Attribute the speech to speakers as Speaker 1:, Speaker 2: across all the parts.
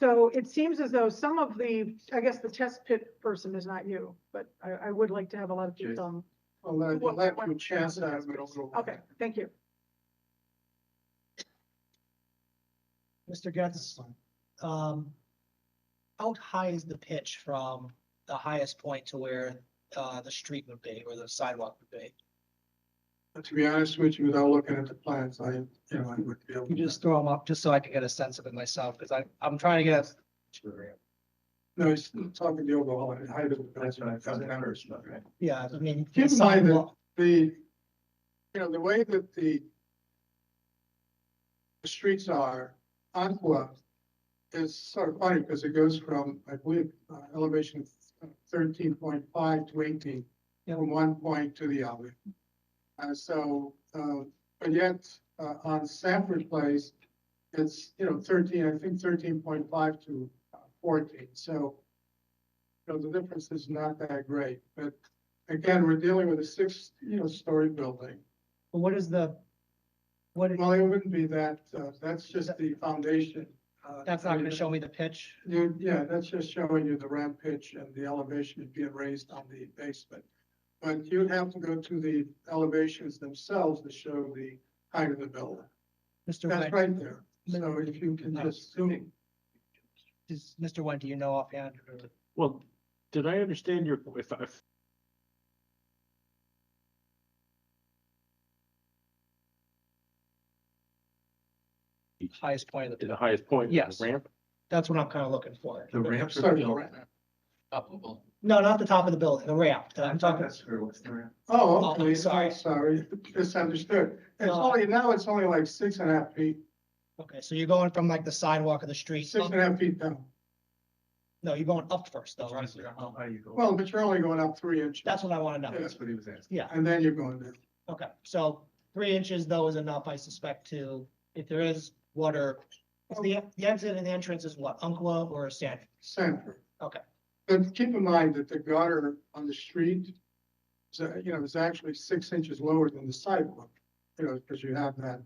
Speaker 1: So it seems as though some of the, I guess the test pit person is not you, but I, I would like to have a lot of people on.
Speaker 2: I'll let,
Speaker 1: What-
Speaker 2: I'll let
Speaker 1: what-
Speaker 2: you chastise me over that.
Speaker 1: Okay, thank you.
Speaker 3: Mr. Getz, um, how high is the pitch from the highest point to where, uh, the street would be, or the sidewalk would be?
Speaker 2: But To be honest with you, without looking at the plans, I, you know, I would be able.
Speaker 3: You
Speaker 2: to
Speaker 3: just throw them up, just so I can get a sense of it myself, because I, I'm trying to get, a-
Speaker 2: No, he's talking the overall height of the building.
Speaker 3: yeah, I mean.
Speaker 2: Keep in
Speaker 3: the
Speaker 2: mind that-
Speaker 3: sidewalk-
Speaker 2: The, you know, the way that the the streets are, Aqua is sort of funny because it goes from, I believe, uh, elevation thirteen point five to eighteen,
Speaker 3: Yeah.
Speaker 2: from one point to the other. And so, uh, but yet, uh, on Sanford Place, it's, you know, thirteen, I think thirteen point five to uh, fourteen, so you know, the difference is not that great, but again, we're dealing with a six, you know, story building.
Speaker 3: But What is the, what, is-
Speaker 2: Well, it wouldn't be that, uh, that's just the foundation. uh,
Speaker 3: that's not gonna show me the pitch?
Speaker 2: You, yeah, that's just showing you the ramp pitch and the elevation being raised on the basement. But you'd have to go to the elevations themselves to show the height of the building.
Speaker 3: Mr.
Speaker 2: That's
Speaker 3: Wen,
Speaker 2: right there. So if you can just zoom,
Speaker 3: does, Mr. Wen, do you know offhand? or-
Speaker 4: Well, did I understand your, if, if,
Speaker 3: Highest point of
Speaker 4: to
Speaker 3: the,
Speaker 4: the highest point? the
Speaker 3: Yes.
Speaker 4: Ramp?
Speaker 3: that's what I'm kinda looking for.
Speaker 5: The ramps are
Speaker 2: sorry, the
Speaker 5: built
Speaker 2: ramp.
Speaker 5: up a little.
Speaker 3: No, not the top of the building, the ramp, that I'm talking,
Speaker 5: That's where what's the ramp?
Speaker 2: Oh,
Speaker 3: Oh,
Speaker 2: okay,
Speaker 3: sorry.
Speaker 2: sorry, sorry, misunderstood. It's
Speaker 3: No.
Speaker 2: only, now it's only like six and a half feet,
Speaker 3: okay, so you're going from like the sidewalk of the street,
Speaker 2: six and a half feet down.
Speaker 3: no, you're going up first though, right? Oh,
Speaker 5: How high you go?
Speaker 2: Well, but you're only going up three inches.
Speaker 3: That's what I wanna know,
Speaker 2: Yeah.
Speaker 5: That's what he was asking.
Speaker 3: yeah,
Speaker 2: And then you're going down.
Speaker 3: okay, so three inches though is enough, I suspect, to, if there is water. Is the, the exit and the entrance is what, Umpqua or Sanford?
Speaker 2: center.
Speaker 3: Okay.
Speaker 2: But keep in mind that the gutter on the street, is, uh, you know, is actually six inches lower than the sidewalk. You know, because you have that,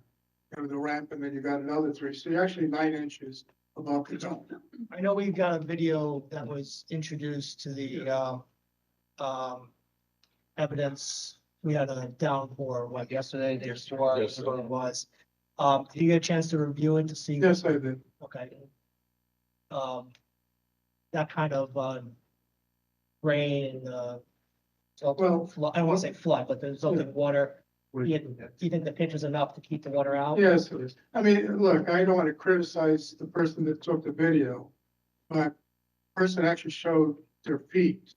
Speaker 2: you know, the ramp and then you got another three, so you're actually nine inches above the top.
Speaker 3: I know we've got a video that was introduced to the, um, um, evidence. We had a downpour, what, yesterday, day before,
Speaker 4: Yes, sir.
Speaker 3: whatever it was. Um, did you get a chance to review it to see?
Speaker 2: Yes, I did.
Speaker 3: Okay. Um, that kind of, um, rain, uh, so,
Speaker 2: Well-
Speaker 3: flood, I don't wanna say flood, but there's open water.
Speaker 5: What
Speaker 3: Do
Speaker 5: do you
Speaker 3: you,
Speaker 5: think that-
Speaker 3: do you think the pitch is enough to keep the water out?
Speaker 2: Yes, it is. I mean, look, I don't want to criticize the person that took the video, but the person actually showed their feet.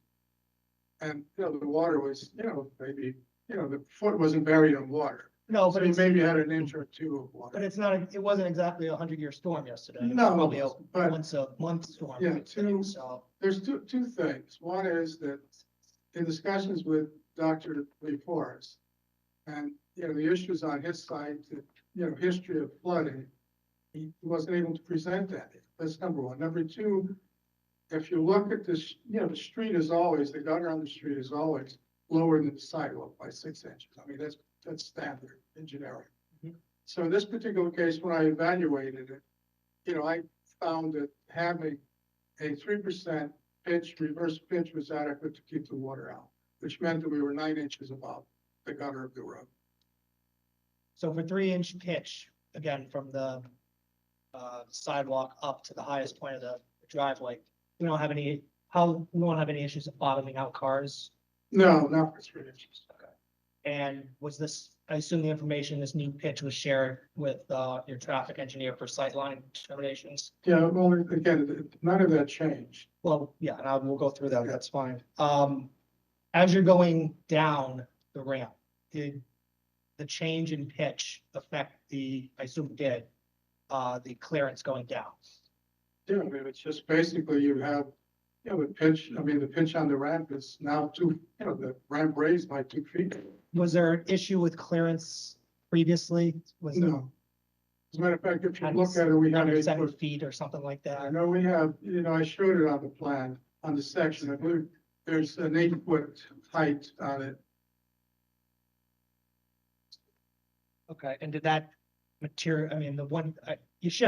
Speaker 2: And, you know, the water was, you know, maybe, you know, the foot wasn't buried in water. So
Speaker 3: No, Oh, but
Speaker 2: you
Speaker 3: it's,
Speaker 2: maybe had an inch or two of water.
Speaker 3: but it's not, it wasn't exactly a hundred year storm yesterday. It was
Speaker 2: No,
Speaker 3: Probably a
Speaker 2: but-
Speaker 3: once a month storm.
Speaker 2: Yeah, two-
Speaker 3: So,
Speaker 2: There's two, two things. One is that in discussions with Dr. Lee Forrest, and, you know, the issues on his side, the, you know, history of flooding, he wasn't able to present that. That's number one. Number two, if you look at this, you know, the street is always, the gutter on the street is always lower than the sidewalk by six inches. I mean, that's, that's standard engineering.
Speaker 3: Mhm.
Speaker 2: So in this particular case, when I evaluated it, you know, I found that having a three percent pitch, reverse pitch was adequate to keep the water out, which meant that we were nine inches above the gutter of the road.
Speaker 3: so for three inch pitch, again, from the, uh, sidewalk up to the highest point of the driveway, we don't have any, how, we won't have any issues of bottoming out cars?
Speaker 2: No, not for three inches.
Speaker 3: And was this, I assume the information, this new pitch was shared with uh your traffic engineer for sightline determinations?
Speaker 2: Yeah, well, again, th- none of that changed.
Speaker 3: Well, yeah, and I will go through that, that's fine. Um, as you're going down the ramp, did the change in pitch affect the, I assume it did, uh, the clearance going down?
Speaker 2: Yeah, I mean, it's just basically you have, you know, the pitch, I mean, the pitch on the ramp is now two, you know, the ramp raised by two feet.
Speaker 3: Was there an issue with clearance previously? Was there
Speaker 2: No. As a matter of fact, if you
Speaker 3: Kind of
Speaker 2: look at it, we have
Speaker 3: under
Speaker 2: eight
Speaker 3: seven
Speaker 2: foot
Speaker 3: feet or something like
Speaker 2: I
Speaker 3: that?
Speaker 2: know we have, you know, I showed it on the plan, on the section, I believe there's an eight foot height on it.
Speaker 3: Okay, and did that material, I mean, the one, I- you should